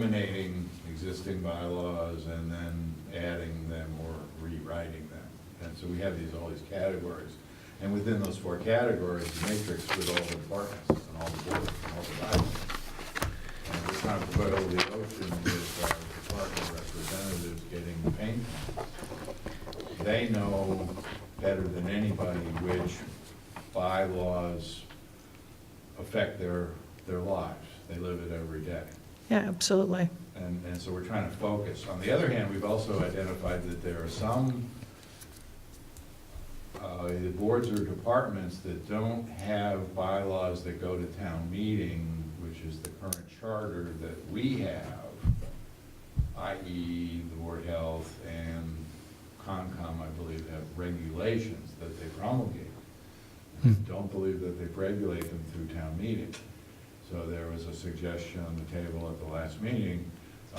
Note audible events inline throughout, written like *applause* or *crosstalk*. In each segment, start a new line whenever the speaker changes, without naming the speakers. eliminating existing bylaws and then adding them or rewriting them. And so we have these, all these categories. And within those four categories, the matrix with all the departments and all the boards and all the bylaws. And we're trying to put all the ocean with our department representatives getting the paint. They know better than anybody which bylaws affect their, their lives. They live it every day.
Yeah, absolutely.
And, and so we're trying to focus. On the other hand, we've also identified that there are some, uh, either boards or departments that don't have bylaws that go to town meeting, which is the current charter that we have, i.e. the Board of Health and Concom, I believe, have regulations that they promulgate. And I Don't believe that they regulate them through town meeting. So there was a suggestion on the table at the last meeting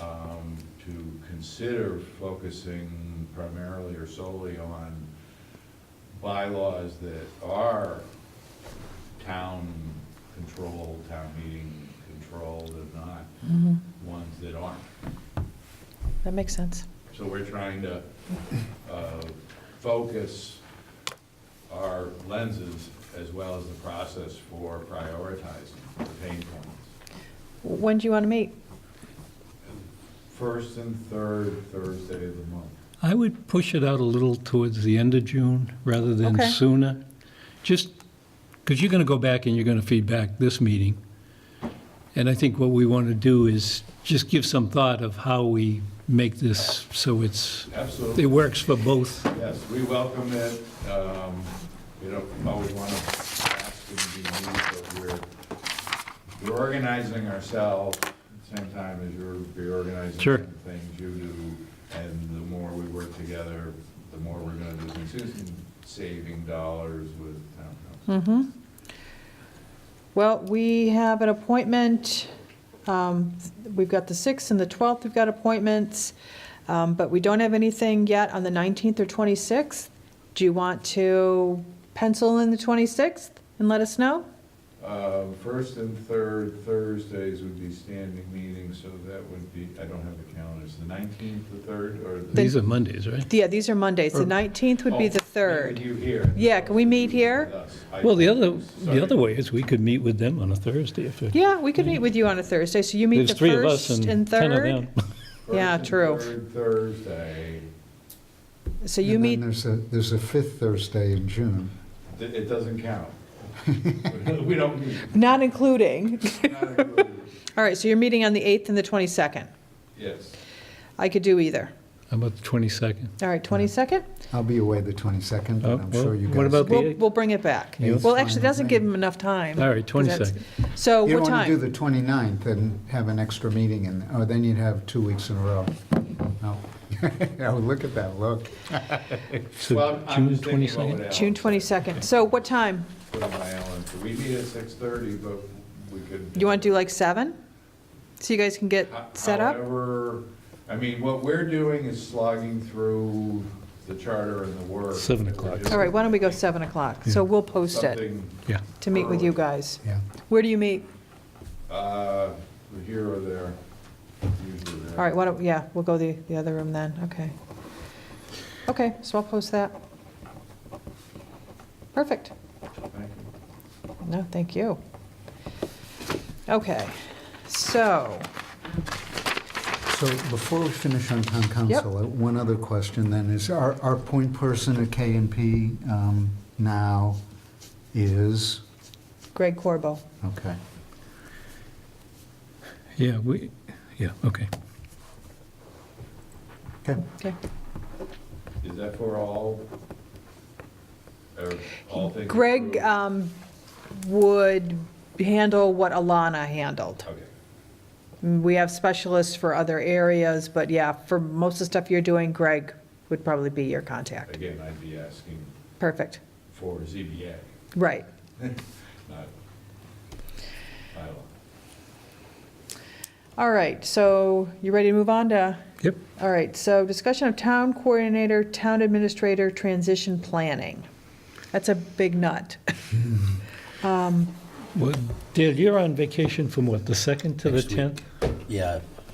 um, to consider focusing primarily or solely on bylaws that are town controlled, town meeting controlled, and not
Mm-hmm.
ones that aren't.
That makes sense.
So we're trying to uh, focus our lenses as well as the process for prioritizing the pain points.
When do you want to meet?
First and third Thursday of the month.
I would push it out a little towards the end of June rather than
Okay.
sooner. Just, because you're going to go back and you're going to feedback this meeting. And I think what we want to do is just give some thought of how we make this so it's, it
Absolutely,
works for both.
yes, we welcome it. Um, We don't always want to ask and be mean, but we're, we're organizing ourselves at the same time as you're reorganizing
Sure.
some things you do. And the more we work together, the more we're going to do, Susan, saving dollars with town council.
Mm-hmm. Well, we have an appointment, um, we've got the 6th and the 12th, we've got appointments, um, but we don't have anything yet on the 19th or 26th. Do you want to pencil in the 26th and let us know?
Uh, First and third Thursdays would be standing meetings, so that would be, I don't have the calendars, the 19th, the 3rd, or the...
These are Mondays, right?
Yeah, these are Mondays, the
Or-
19th would be the
Oh, meet
3rd.
with you here.
Yeah, can we meet here?
Yes, I-
Well, the other, the other
Sorry.
way is we could meet with them on a Thursday if it-
Yeah, we could meet with you on a Thursday, so you meet
there's
the
three of us
1st
and
and
10 of
3rd?
them.
First
yeah,
and
true.
third Thursday,
So you
And
meet
then there's a, there's a fifth Thursday in June.
Th- it doesn't count. We don't meet.
Not including.
Not included.
All right, so you're meeting on the 8th and the 22nd.
Yes.
I could do either.
How about the 22nd?
All right, 22nd?
I'll be away the 22nd,
Oh,
and I'm sure
well,
you guys.
what about the-
We'll,
8th?
we'll bring it back.
Yeah, that's
Well,
fine
actually, it
with
doesn't
me.
give them enough time.
All right,
'cause that's-
22nd.
So
You
Oh, what
don't want to do
time?
the 29th and have an extra meeting, and, oh, then you'd have two weeks in a row. No. *laughs* Oh, look at that look.
So
Well, I'm- I'm
June
just thinking about
22nd?
what Alan
June 22nd. So what time?
Put on my Alan, so we meet at 6:30, but we could.
You want to do like 7? So you guys can get
Ho-
set up?
However, I mean, what we're doing is slogging through the charter and the work.
Seven o'clock.
All right, why don't we go 7 o'clock? So
Yeah.
we'll post it
Something,
Yeah,
to meet with you
early.
guys.
Yeah.
Where do you meet?
uh, here or there, usually there.
All right, why don't, yeah, we'll go the, the other room then, okay. Okay, so I'll post that. Perfect.
Thank you.
No, thank you. Okay, so,
So before we finish on town council, uh, one other question then is, our, our point person at KNP um, now is,
Greg Corbo.
okay.
yeah, we, yeah, okay.
Okay.
Okay.
Is that for all, or all things?
Greg
approved?
um, would handle what Alana handled.
Okay,
We have specialists for other areas, but yeah, for most of the stuff you're doing, Greg would probably be your contact.
again, I'd be asking
Perfect,
for ZBA,
right.
not bylaw.
All right, so you ready to move on to?
Yep.
All right, so discussion of town coordinator, town administrator, transition planning. That's a big nut.
Well, Dale, you're on vacation from what, the 2nd to the
Next week.
10th?
Yeah,